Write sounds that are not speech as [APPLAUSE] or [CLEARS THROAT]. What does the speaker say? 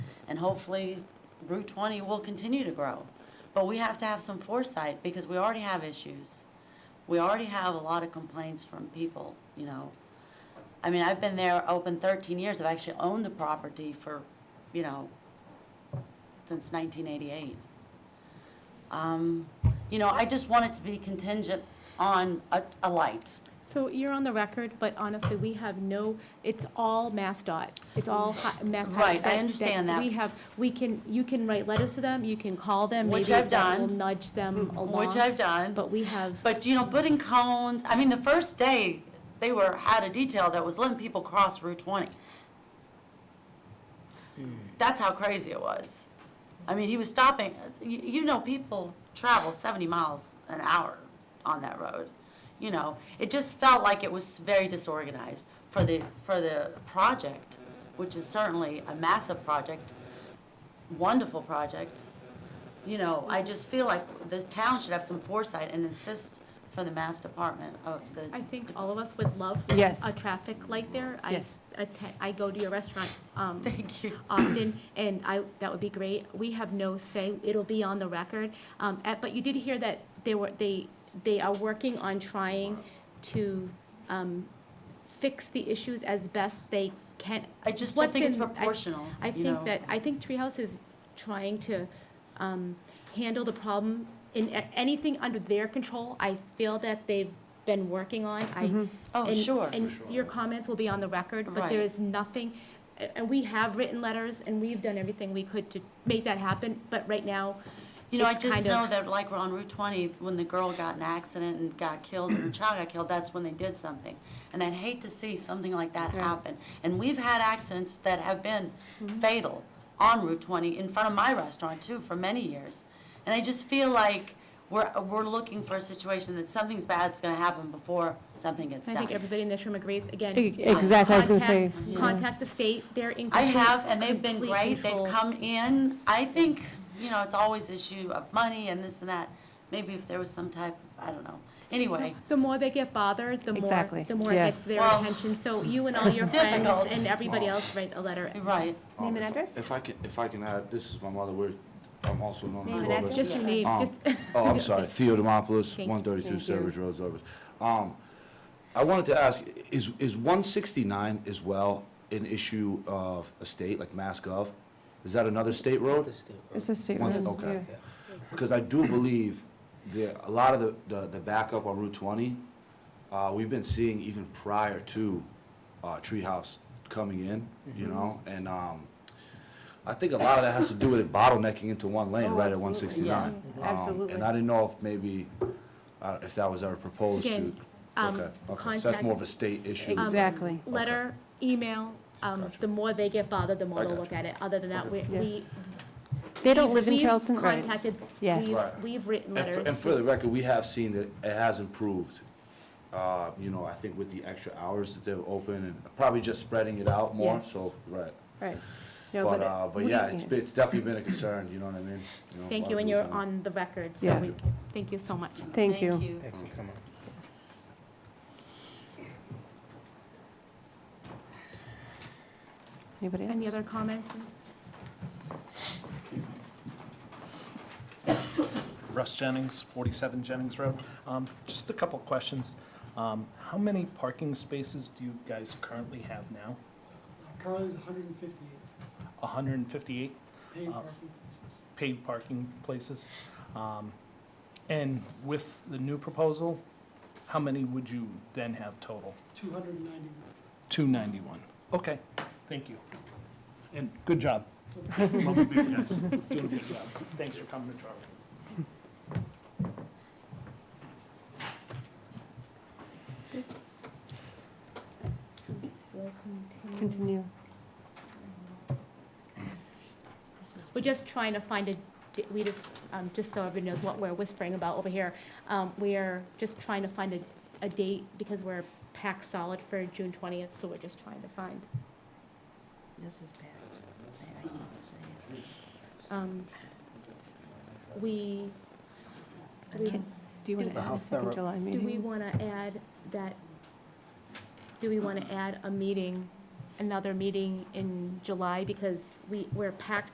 hopefully Route 20 will continue to grow. But we have to have some foresight because we already have issues. We already have a lot of complaints from people, you know. I mean, I've been there open 13 years. I've actually owned the property for, you know, since 1988. Um, You know, I just want it to be contingent on a, a light. So you're on the record, but honestly, we have no, it's all MassDOT. It's all hi- Mass. Highway. Right, I understand that. We have, we can, you can write letters to them, you can call them. Which maybe I've that will done. Mm, Nudge them along. Which I've done. But we have, But, you know, putting cones, I mean, the first day, they were, had a detail that was letting people cross Route 20. That's how crazy it was. I mean, he was stopping, you, you know, people travel 70 miles an hour on that road. You know, it just felt like it was very disorganized for the, for the project, which is certainly a massive project, wonderful project. You know, I just feel like this town should have some foresight and insist for the Mass Department of the, I think all of us would love Yes. a traffic light there. I Yes. atte- I go to your restaurant, [LAUGHS] um, thank you. often, and I, that would be great. We have no say, it'll be on the record. Um, at- But you did hear that they were, they, they are working on trying to um, fix the issues as best they can. I just don't What's think it's in- I- proportional, I you know. think that, I think Treehouse is trying to um, handle the problem in a- anything under their control. I feel that they've been working on. I Oh, and- sure. And your comments will be on the record, but there Right. is nothing, a- and we have written letters, and we've done everything we could to make that happen, but right now, You know, I it's just kind know of- that like we're on Route twenty, when the girl got in an accident and got killed, [CLEARS THROAT] and her child got killed, that's when they did something. And I'd hate to see something like that Right. Mm-hmm. happen. And we've had accidents that have been fatal on Route twenty, in front of my restaurant too, for many years. And I just feel like we're, we're looking for a situation that something's bad's gonna happen before something gets I done. think everybody in this room agrees, again. E- exactly, I was gonna say, contact- Contact the state, they're in I complete. have, and they've been complete great, they've control. come in, I think, you know, it's always issue of money and this and that, maybe if there was some type, of I don't know, anyway. The more they get bothered, the more, Exactly, the more it yeah. gets their Well, attention, so you and all your it's friends difficult. and everybody else write a letter. You're Right, Um, Name and if- address? If I can, if I can add, this is my mother, we're, I'm also known Name as and Robert. address? Just your name, Um, just, [LAUGHS] Oh, I'm sorry, Theo Demopoulos, Thank- one thirty-two thank you. Sturbridge Road, Sturbridge. Um, I wanted to ask, is, is one sixty-nine as well an issue of a state, like Mass Gov? Is that another state road? It's a state Once- road, okay. yeah. Because I do believe there, a lot of the, the, the backup on Route twenty, uh, we've been seeing even prior to, uh, Treehouse coming in, you know, and, um, I think a lot of that has to do with it bottlenecking into one lane Oh, right at one absolutely. Yeah. sixty-nine. Um, Absolutely. And I didn't know if maybe, uh, if that was ever proposed to. Again, um, Okay, okay. So that's contact- more of a state issue. [LAUGHS] Um, Exactly. Letter, email, um, Gotcha. the more they get bothered, the more I they'll gotcha. look at it. Other than that, we, Yeah. we. They don't live in we've Charlton, right? Contacted, Yes. we've, Right. we've written And for, and letters. for the record, we have seen that it has improved. Uh, you know, I think with the extra hours that they're open and probably just spreading it out more, Yes. so, right. Right. No, But, it- uh, but we- yeah, it's, been- it's definitely been a concern, you know what I mean? know, a Thank lot you, of and people you're tell me. on the record, so Yeah. we, thank you so much. Thank you. Thanks for coming. Anybody else? Any other comments? Russ Jennings, 47 Jennings Road. Um, Just a couple of questions. Um, How many parking spaces do you guys currently have now? Currently is hundred and fifty-eight 158 paid Uh, parking places. paid parking places? Um, And with the new proposal, how many would you then have total? Two hundred and ninety-one. 291. Okay, thank you. And good [LAUGHS] job. Love to be with you guys. Doing a good job. Thanks for coming to Charlton. Continue. We're just trying to find a, di- we just, um, just so everybody knows what we're whispering about over here. Um, we are just trying to find a, a date because we're packed solid for June twentieth, so we're just trying to find, This is bad. I hate to say it. um, we. we- Can- Do you want Do- to add a second July Do meeting? we want to add that, do we want to add a meeting, another meeting in July? Because we, we're packed